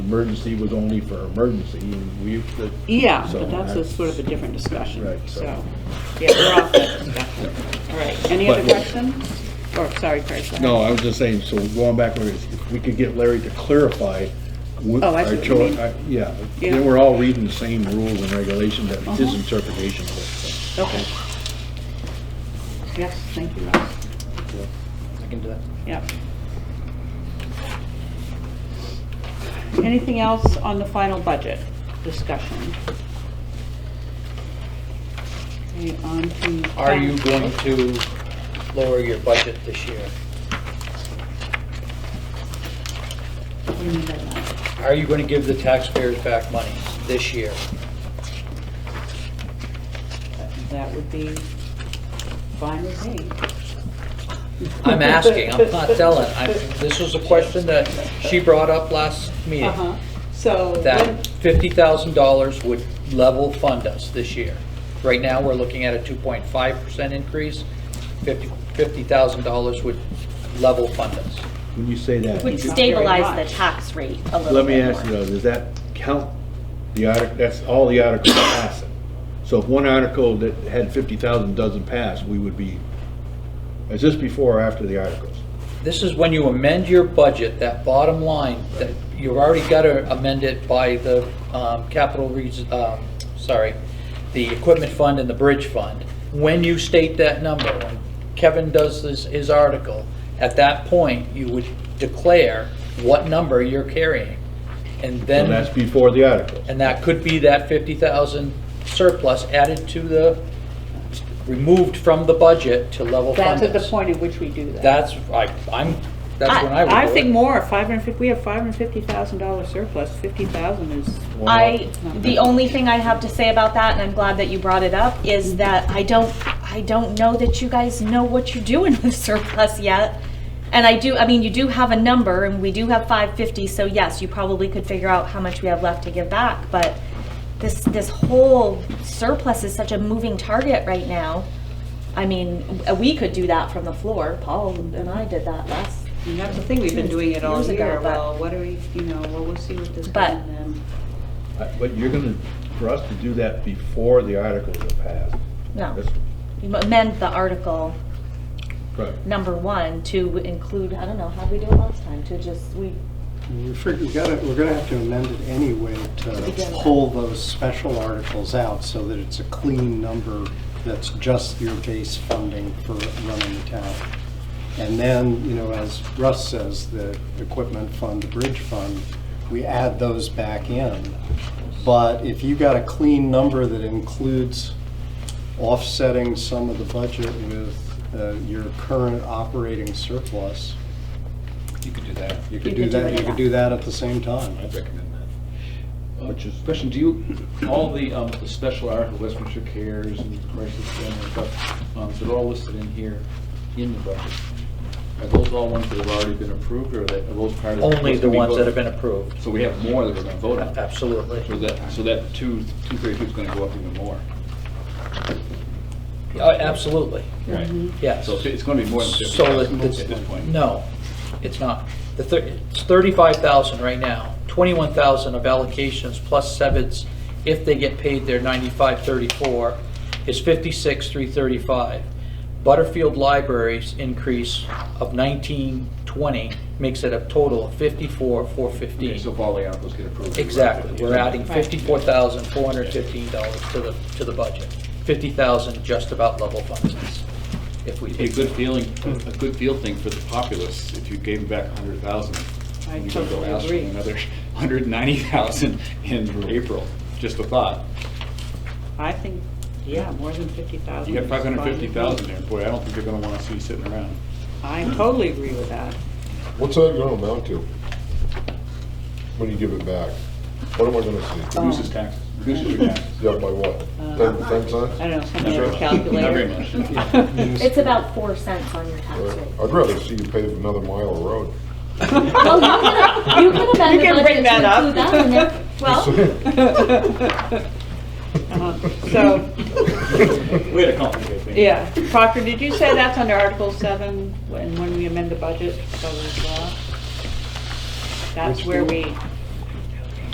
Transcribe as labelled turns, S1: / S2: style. S1: emergency was only for emergency, and we, the-
S2: Yeah,
S1: So
S2: but that's a
S1: that's-
S2: sort of a different discussion,
S1: Right, so-
S2: so, yeah, we're off that discussion. All right, any other
S1: But-
S2: questions? Or, sorry, Craig, go ahead.
S1: no, I was just saying, so going backwards, if we could get Larry to clarify. what
S2: Oh, I see
S1: our
S2: what you
S1: cho-
S2: mean.
S1: I- Yeah,
S2: Yeah.
S1: they were all reading the same rules and regulations, that was his
S2: Uh-huh.
S1: interpretation of it, so.
S2: Okay. Yes, thank you, Ross.
S3: I can do that.
S2: Yep. Anything else on the final budget discussion? Okay, on to.
S3: Are you going to lower your budget this year?
S2: What do you mean by that?
S3: Are you going to give the taxpayers back money this year?
S2: That would be fine with me.
S3: I'm asking, I'm not telling. I- This was a question that she brought up last meeting,
S2: Uh-huh, so.
S3: that $50,000 would level fund us this year. Right now, we're looking at a 2.5% increase. Fifty $50,000 would level fund us.
S1: When you say that.
S4: Would
S2: not very
S4: stabilize
S2: much.
S4: the tax rate a little
S1: Let me
S4: bit
S1: ask you
S4: more.
S1: though, does that count the article, that's all the articles passing? So if one article that had fifty thousand doesn't pass, we would be, is this before or after the articles?
S3: This is when you amend your budget, that bottom line, that you've already got to amend it by the um, capital, res- um, sorry, the equipment fund and the bridge fund. When you state that number, when Kevin does his, his article, at that point, you would declare what number you're carrying. And
S1: So that's
S3: then,
S1: before the articles.
S3: and that could be that 50,000 surplus added to the, removed from the budget to level fund
S2: That's at the
S3: us.
S2: point at which we do that.
S3: That's, I, I'm, that's when I would do
S2: I
S3: it.
S2: think more, five hundred fifty, we have five hundred fifty thousand dollar surplus, fifty thousand is,
S1: Well,
S4: I, the only thing I have to say about that, and I'm glad that you brought it up, is that I don't, I don't know that you guys know what you're doing with surplus yet. And I do, I mean, you do have a number, and we do have five fifty, so yes, you probably could figure out how much we have left to give back, but this, this whole surplus is such a moving target right now. I mean, w- we could do that from the floor, Paul and I did that last,
S2: and that's the thing, we've been doing it all
S4: Years ago,
S2: year,
S4: but-
S2: well, what do we, you know, well, we'll see what this
S4: But-
S2: comes in.
S1: But you're gonna, for us to do that before the articles are passed,
S4: no.
S1: that's,
S4: You amend the article
S1: right.
S4: number one to include, I don't know, how did we do it last time, to just, we,
S5: We're fig- we gotta, we're gonna have to amend it anyway to
S4: begin with.
S5: pull those special articles out so that it's a clean number that's just your base funding for running the town. And then, you know, as Russ says, the equipment fund, the bridge fund, we add those back in. But if you got a clean number that includes offsetting some of the budget with uh, your current operating surplus,
S6: You could do that.
S5: you
S4: You
S5: could do
S4: could do
S5: that,
S4: it,
S5: you
S4: yeah.
S5: could do that at the same time.
S6: I'd recommend that.
S1: Which is-
S6: Question, do you, all the, um, the special articles, Westminster Cares and Crisis Center and stuff, um, they're all listed in here in the budget. Are those all ones that have already been approved or are that, are those part of?
S3: Only
S6: what's
S3: the
S6: gonna be
S3: ones that have
S6: voted?
S3: been approved, Uh,
S6: So we have more that we're gonna vote on.
S3: absolutely.
S6: So that, so that two, two thirty-two is gonna go up even more.
S3: Uh, Absolutely,
S6: Right.
S3: yes.
S6: So it's gonna be more than fifty
S3: So
S6: thousand
S3: the-
S6: at this point.
S3: the- No, it's not. The, thir- it's 35,000 right now, 21,000 of allocations plus sevens, if they get paid their 9534, is 56,335. Butterfield Libraries increase of 1920 makes it a total of 54,415.
S6: Okay, So if all the articles get approved. we're at
S3: Exactly,
S6: 50.
S3: we're adding
S2: Right.
S3: fifty-four thousand, four hundred and fifteen dollars to the, to the budget. Fifty thousand just about level funds us, if we
S6: It'd be a
S3: take.
S6: good feeling, a good feel thing for the populace if you gave them back a hundred thousand.
S2: I
S6: and you could go
S2: totally
S6: ask for
S2: agree.
S6: Another hundred ninety thousand in April, just a thought.
S2: I think, yeah, more than fifty thousand.
S6: You got five hundred fifty thousand there, boy, I don't think they're gonna wanna see you sitting around.
S2: I totally agree with that.
S7: What's that gonna amount to? When you give it back? What am I gonna
S2: Oh.
S7: see?
S6: Reduces taxes, reduces your taxes.
S7: Yeah, by what? Ten, ten cents?
S2: Uh, I don't know,
S6: Not
S2: somebody
S6: very
S2: had a
S6: much. Not very
S2: calculator.
S6: much.
S4: it's about four cents on your tax
S7: Right.
S4: rate.
S7: I'd rather see you pave another mile of road.
S4: Well, you can,
S2: You
S4: you can amend
S2: can
S4: the
S2: bring
S4: budget to
S2: that up.
S4: include that in there. Well,
S2: Uh-huh. So,
S6: Way to complicate things.
S2: yeah, Proctor, did you say that's under Article seven, and when we amend the budget, so as well? That's
S5: Which
S2: where
S5: we-
S2: we